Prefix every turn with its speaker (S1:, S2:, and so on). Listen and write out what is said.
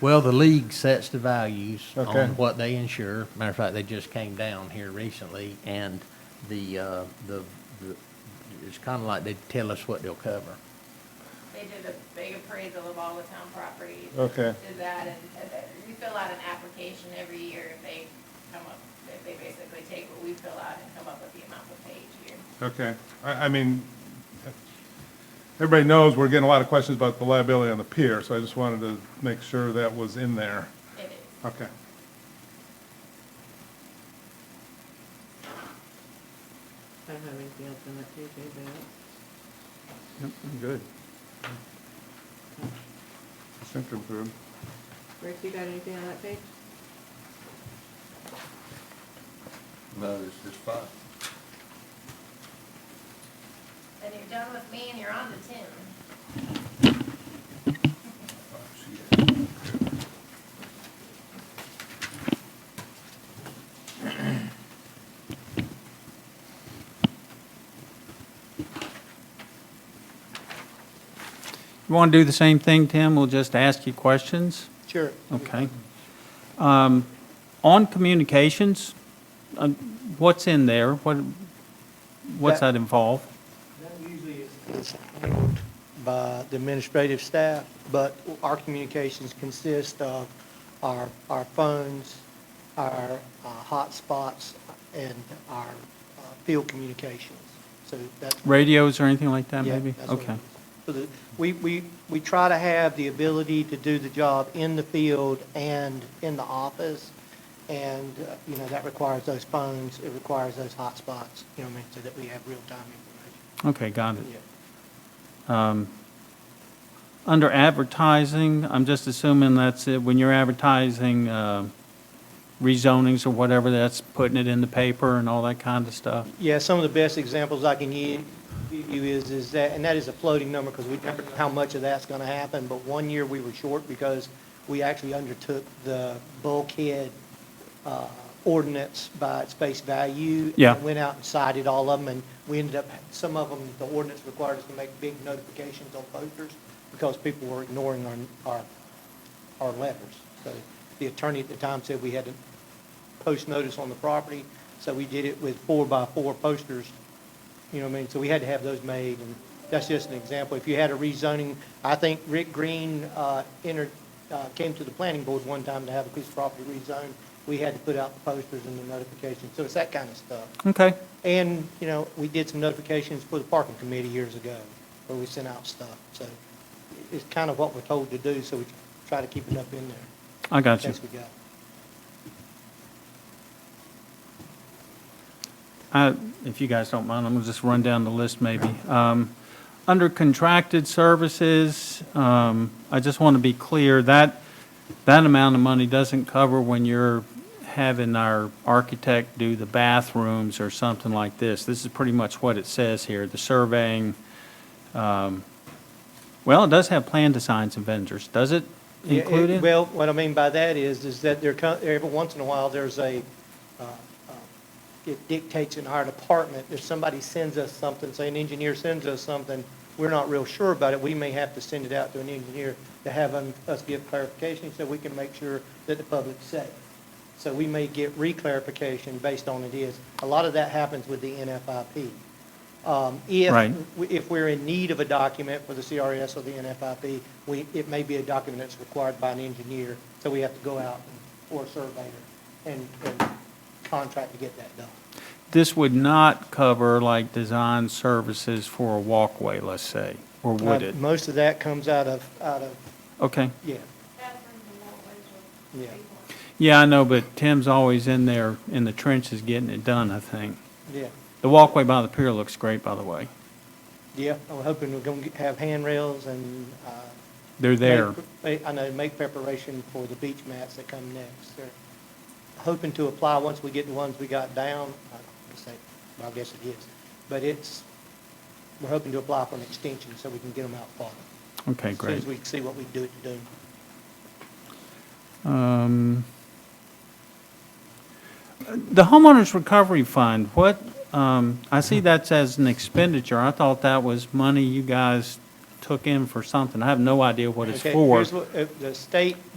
S1: Well, the league sets the values
S2: Okay.
S1: on what they insure. Matter of fact, they just came down here recently, and the, uh, the, the- it's kind of like they tell us what they'll cover.
S3: They did a big appraisal of all the town properties.
S2: Okay.
S3: Did that, and and that- you fill out an application every year, and they come up, they they basically take what we fill out and come up with the amount we pay each year.
S2: Okay, I, I mean, everybody knows we're getting a lot of questions about the liability on the pier, so I just wanted to make sure that was in there.
S3: It is.
S2: Okay.
S4: I don't have anything else on that page, anybody else?
S2: Yep, I'm good. I think I'm good.
S4: Rick, you got anything on that page?
S5: No, it's just five.
S3: Then you're done with me and you're on to Tim.
S6: You want to do the same thing, Tim? We'll just ask you questions?
S7: Sure.
S6: Okay. Um, On communications, uh, what's in there? What, what's
S7: That-
S6: that involve?
S7: That usually is is handled by the administrative staff, but our communications consist of our, our phones, our uh, hotspots, and our uh, field communications. So that's.
S6: Radios or anything like that,
S7: Yeah,
S6: maybe?
S7: that's what it
S6: Okay.
S7: is. So the- We, we, we try to have the ability to do the job in the field and in the office, and, uh, you know, that requires those phones, it requires those hotspots, you know, what I mean, so that we have real-time information.
S6: Okay, got it.
S7: Yeah.
S6: Um, Under advertising, I'm just assuming that's it, when you're advertising uh, rezonings or whatever, that's putting it in the paper and all that kind of stuff?
S7: Yeah, some of the best examples I can give you is, is that, and that is a floating number because we don't know how much of that's going to happen, but one year we were short because we actually undertook the bulkhead uh, ordinance by its face value.
S6: Yeah.
S7: and Went out and cited all of them, and we ended up, some of them, the ordinance required us to make big notifications on posters because people were ignoring our, our, our letters. So the attorney at the time said we had to post notice on the property, so we did it with four-by-four posters, you know what I mean? So we had to have those made, and that's just an example. If you had a rezoning, I think Rick Green uh, entered, uh, came to the planning board one time to have a piece of property rezoned. We had to put out the posters and the notifications, so it's that kind of stuff.
S6: Okay,
S7: And, you know, we did some notifications for the parking committee years ago, where we sent out stuff. So it's kind of what we're told to do, so we try to keep it up in there.
S6: I got you.
S7: Best we got.
S6: I- If you guys don't mind, I'm going to just run down the list maybe. Um, Under contracted services, um, I just want to be clear, that, that amount of money doesn't cover when you're having our architect do the bathrooms or something like this. This is pretty much what it says here, the surveying. um, Well, it does have plan designs and vendors, does it
S7: Yeah, it-
S6: include it?
S7: Well, what I mean by that is, is that there, co- every once in a while, there's a, uh, uh, it dictates in our department, if somebody sends us something, say an engineer sends us something, we're not real sure about it, we may have to send it out to an engineer to have them- us give clarification so we can make sure that the public's safe. So we may get reclarification based on it is. A lot of that happens with the NFIP. Um, If,
S6: Right.
S7: w- if we're in need of a document for the CRS or the NFIP, we, it may be a document that's required by an engineer, so we have to go out and- or a surveyor and, and contract to get that done.
S6: This would not cover like design services for a walkway, let's say, or would
S7: Uh,
S6: it?
S7: Most of that comes out of, out of,
S6: Okay.
S7: yeah,
S3: Bathrooms and walkways are
S7: Yeah.
S3: people.
S6: Yeah, I know, but Tim's always in there in the trenches getting it done, I think.
S7: yeah,
S6: The walkway by the pier looks great, by the way.
S7: yeah. I'm hoping we're going to have handrails and. uh,
S6: They're there.
S7: make- I know, make preparation for the beach mats that come next. They're hoping to apply once we get the ones we got down. I would say- well, I guess it is. But it's, we're hoping to apply for an extension so we can get them out farther.
S6: Okay,
S7: As
S6: great.
S7: soon as we see what we do to do.
S6: Um, The homeowners recovery fund, what, um, I see that's as an expenditure. I thought that was money you guys took in for something. I have no idea what it's
S7: Okay,
S6: for.
S7: here's what- uh, The state